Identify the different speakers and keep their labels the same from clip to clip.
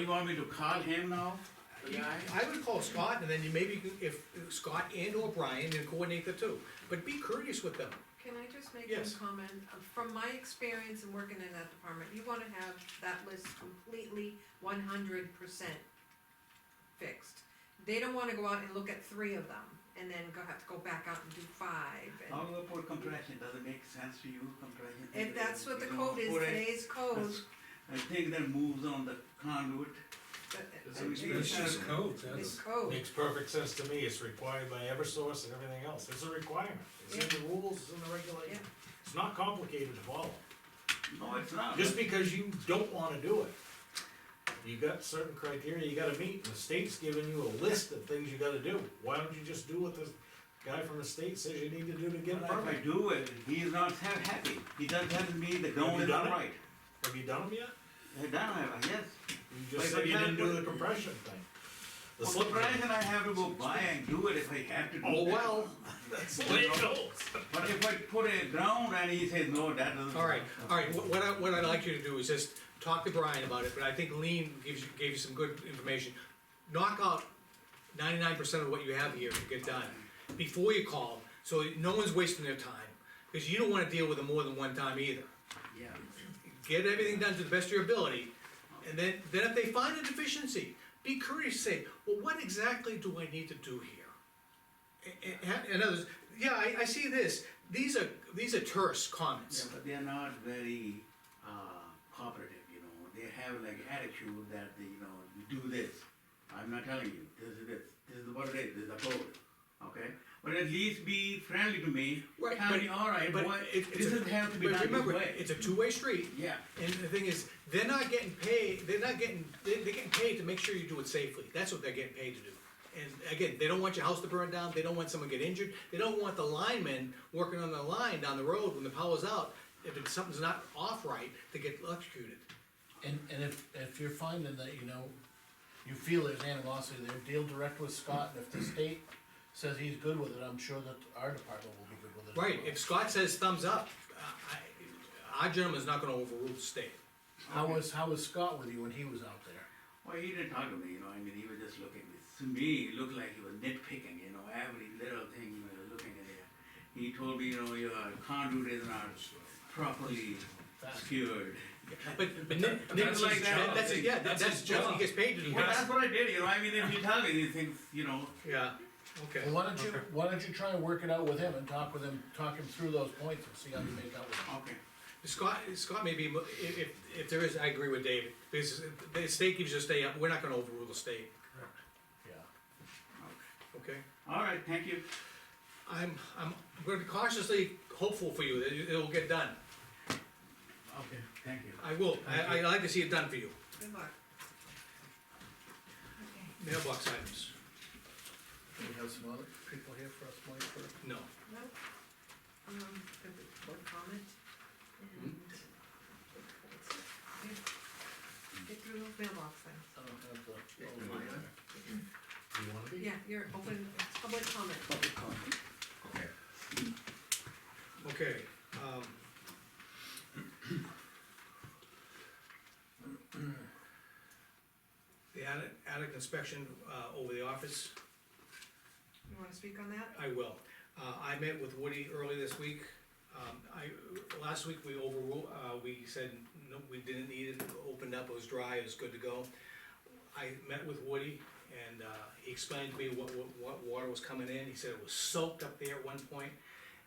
Speaker 1: You want me to call him now, the guy?
Speaker 2: I would call Scott, and then you maybe, you- if if Scott and or Brian, then coordinate the two, but be courteous with them.
Speaker 3: Can I just make
Speaker 2: Yes.
Speaker 3: one comment? Uh, From my experience in working in that department, you wanna have that list completely one hundred percent fixed. They don't wanna go out and look at three of them, and then go, have to go back out and do five,
Speaker 1: How
Speaker 3: and,
Speaker 1: do you put compression, does it make sense to you, compression?
Speaker 3: and that's what the
Speaker 1: You know,
Speaker 3: code is,
Speaker 1: put a-
Speaker 3: today's code.
Speaker 1: I think that moves on the conduit,
Speaker 3: that-
Speaker 1: It's
Speaker 3: uh,
Speaker 1: always been
Speaker 4: It's
Speaker 3: it's-
Speaker 4: just code,
Speaker 3: It's
Speaker 4: that's,
Speaker 3: code,
Speaker 5: Makes perfect sense to me, it's required by Eversource and everything else, it's a requirement, it's in the rules, it's in the regulation. It's not complicated to follow,
Speaker 1: no, it's not.
Speaker 5: just because you don't wanna do it. You got certain criteria you gotta meet, and the state's giving you a list of things you gotta do, why don't you just do what the guy from the state says you need to do to get a
Speaker 1: But If I
Speaker 5: permit?
Speaker 1: do it, he is not ha- happy, he doesn't have me, the ground
Speaker 5: you
Speaker 1: is
Speaker 5: done
Speaker 1: not
Speaker 5: it?
Speaker 1: right.
Speaker 5: Have you done them yet?
Speaker 1: I done have, yes.
Speaker 5: You just
Speaker 1: Like
Speaker 5: said
Speaker 1: the
Speaker 5: you
Speaker 1: guy
Speaker 5: didn't do
Speaker 1: with-
Speaker 5: the compression thing. The
Speaker 1: Well,
Speaker 5: slip ring.
Speaker 1: Compression I have to go buy and do it if I have to do
Speaker 5: Oh,
Speaker 1: that.
Speaker 5: well, that's the way it goes.
Speaker 1: But if I put a ground and he says, no, that doesn't.
Speaker 2: Alright, alright, what what I, what I'd like you to do is just talk to Brian about it, but I think Lean gives you, gave you some good information. Knock out ninety-nine percent of what you have here to get done, before you call, so no one's wasting their time, cause you don't wanna deal with them more than one time either.
Speaker 1: Yeah,
Speaker 2: get everything done to the best of your ability, and then, then if they find a deficiency, be courteous, say, well, what exactly do I need to do here? A- a- a- In others, yeah, I, I see this, these are, these are terse
Speaker 1: yeah,
Speaker 2: comments.
Speaker 1: but they're not very, uh, cooperative, you know, they have like attitude that, they, you know, you do this. I'm not telling you, this is this, this is what it is, this is the code, okay? But at least be friendly to me,
Speaker 2: Right,
Speaker 1: tell
Speaker 2: but-
Speaker 1: me, alright,
Speaker 2: But
Speaker 1: boy,
Speaker 2: it- it's
Speaker 1: this
Speaker 2: a-
Speaker 1: is have to be
Speaker 2: but
Speaker 1: done this
Speaker 2: remember,
Speaker 1: way.
Speaker 2: It's a two-way street,
Speaker 1: Yeah,
Speaker 2: and the thing is, they're not getting paid, they're not getting, they, they're getting paid to make sure you do it safely, that's what they're getting paid to do. And again, they don't want your house to burn down, they don't want someone to get injured, they don't want the linemen working on the line down the road when the power's out, if it's, something's not off right, to get electrocuted.
Speaker 6: And, and if, if you're finding that, you know, you feel there's animosity there, deal direct with Scott, and if the state says he's good with it, I'm sure that our department will be good with it. as
Speaker 2: Right,
Speaker 6: well.
Speaker 2: if Scott says thumbs up, uh, I, our gentleman's not gonna overrule the state.
Speaker 6: How was, how was Scott with you when he was out there?
Speaker 1: well, he didn't talk to me, you know, I mean, he was just looking, to me, it looked like he was nitpicking, you know, every little thing he was looking at it. He told me, you know, your conduit is not properly secured.
Speaker 2: But, but Nick, Nick,
Speaker 1: That's his job.
Speaker 2: that's, his- yeah,
Speaker 4: That's
Speaker 2: that's,
Speaker 4: his
Speaker 2: that's what he
Speaker 4: job.
Speaker 2: gets paid to do.
Speaker 1: Well, that's what I did, you know, I mean, if you tell me these things, you know,
Speaker 2: Yeah, okay.
Speaker 6: Well, why don't you,
Speaker 2: Okay.
Speaker 6: why don't you try and work it out with him and talk with him, talk him through those points and see how you make out with him?
Speaker 1: okay.
Speaker 2: Scott, Scott may be, mo- i- if, if there is, I agree with David, because the state gives us a stay up, we're not gonna overrule the state,
Speaker 6: Yeah.
Speaker 2: okay?
Speaker 1: All right, thank you.
Speaker 2: I'm, I'm gonna be cautiously hopeful for you, that it- it'll get done,
Speaker 1: Okay, thank you.
Speaker 2: I will, I, I like to see it done for you,
Speaker 3: good luck.
Speaker 2: mailbox items,
Speaker 6: Do we have some other people here for us, Mike, for?
Speaker 2: no.
Speaker 3: No, um, good, one comment, and. Yeah, Get through those mailbox then.
Speaker 6: I don't have the. oh,
Speaker 5: Do you wanna be?
Speaker 3: Yeah, you're open, it's public comment.
Speaker 2: Okay, um. The attic, attic inspection, uh, over the office,
Speaker 3: You wanna speak on that?
Speaker 2: I will. Uh, I met with Woody early this week. Um, I, last week we overruled, uh, we said, no, we didn't need it, opened up, it was dry, it was good to go. I met with Woody and, uh, he explained to me what, what, what water was coming in. He said it was soaked up there at one point.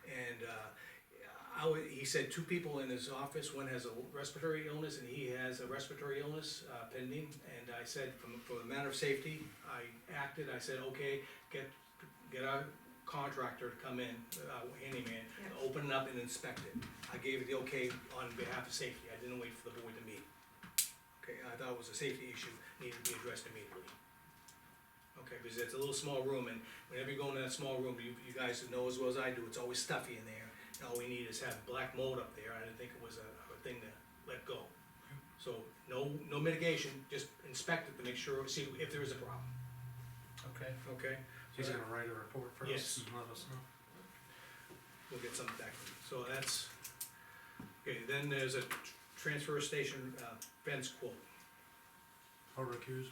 Speaker 2: And, uh, I wa- he said two people in his office, one has a respiratory illness and he has a respiratory illness uh, pending. And I said, from, for a matter of safety, I acted, I said, okay, get, get our contractor to come in, uh, handyman,
Speaker 3: Yeah.
Speaker 2: open it up and inspect it. I gave it the okay on behalf of safety, I didn't wait for the board to meet. Okay, I thought it was a safety issue, needed to be addressed immediately. Okay, because it's a little small room, and whenever you go in that small room, you, you guys know as well as I do, it's always stuffy in there. And all we need is have black mold up there, I didn't think it was a, a thing to let go. So, no, no mitigation, just inspect it to make sure, see if there is a problem,
Speaker 6: Okay.
Speaker 2: okay?
Speaker 4: he's gonna write a report for
Speaker 2: Yes.
Speaker 4: us and let us know.
Speaker 2: We'll get something back from you, so that's, okay, then there's a tr- transfer station uh, fence quote.
Speaker 4: I'll recuse